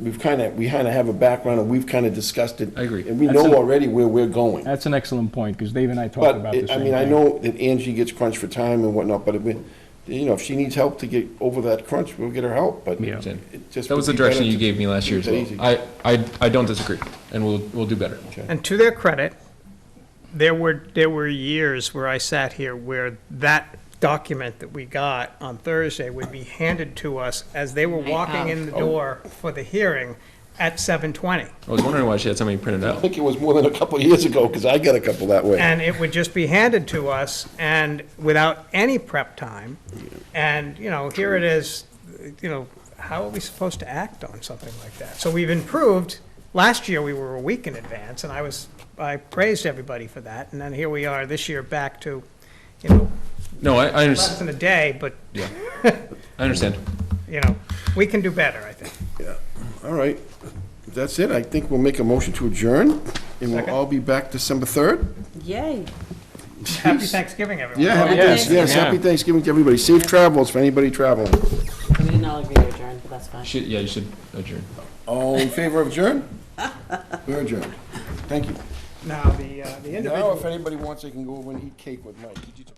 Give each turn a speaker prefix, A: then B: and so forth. A: we've kind of, we kind of have a background and we've kind of discussed it.
B: I agree.
A: And we know
C: Absolutely.
A: already where we're going.
C: That's an excellent point, because Dave and I talked about
A: But,
C: this.
A: it- I mean, I know that Angie gets crunched for time and whatnot, but I mean, you know, if she needs help to get over that crunch, we'll get her help, but.
C: Yeah.
A: it just
B: That was
A: would be
B: the
A: better
B: direction you
A: to-
B: gave me last year as well.
A: Easy.
B: I, I, I don't disagree, and we'll, we'll do better.
D: And to their credit, there were, there were years where I sat here where that document that we got on Thursday would be handed to us as they were
E: I
D: walking in the door for the hearing at seven twenty.
B: I was wondering why she had so many printed
A: I
B: out.
A: think it was more than a couple of years ago, because I got a couple that way.
D: And it would just be handed to us and without any prep time. And, you know, here it is, you know, how are we supposed to act on something like that? So we've improved. Last year, we were a week in advance and I was, I praised everybody for that. And then here we are this year back to, you know,
B: No, I, I
D: less
B: understand,
D: than a day, but,
B: I understand.
D: you know, we can do better, I think.
A: All right, If that's it. I think we'll make a motion to adjourn, and we'll all be back December 3rd.
E: Yay.
D: Happy Thanksgiving, everyone.
A: Yeah, happy
E: Yeah.
A: Thanksgiving, yes,
C: Yeah.
A: happy Thanksgiving to everybody. Safe travels for anybody traveling.
E: We didn't all agree to adjourn, but that's fine.
B: Should, yeah, you should adjourn.
A: All in favor of adjourn? We're adjourned. Thank you.
D: Now, the, uh, the individual.
A: Now, if anybody wants, they can go over and eat cake with Mike. Did you-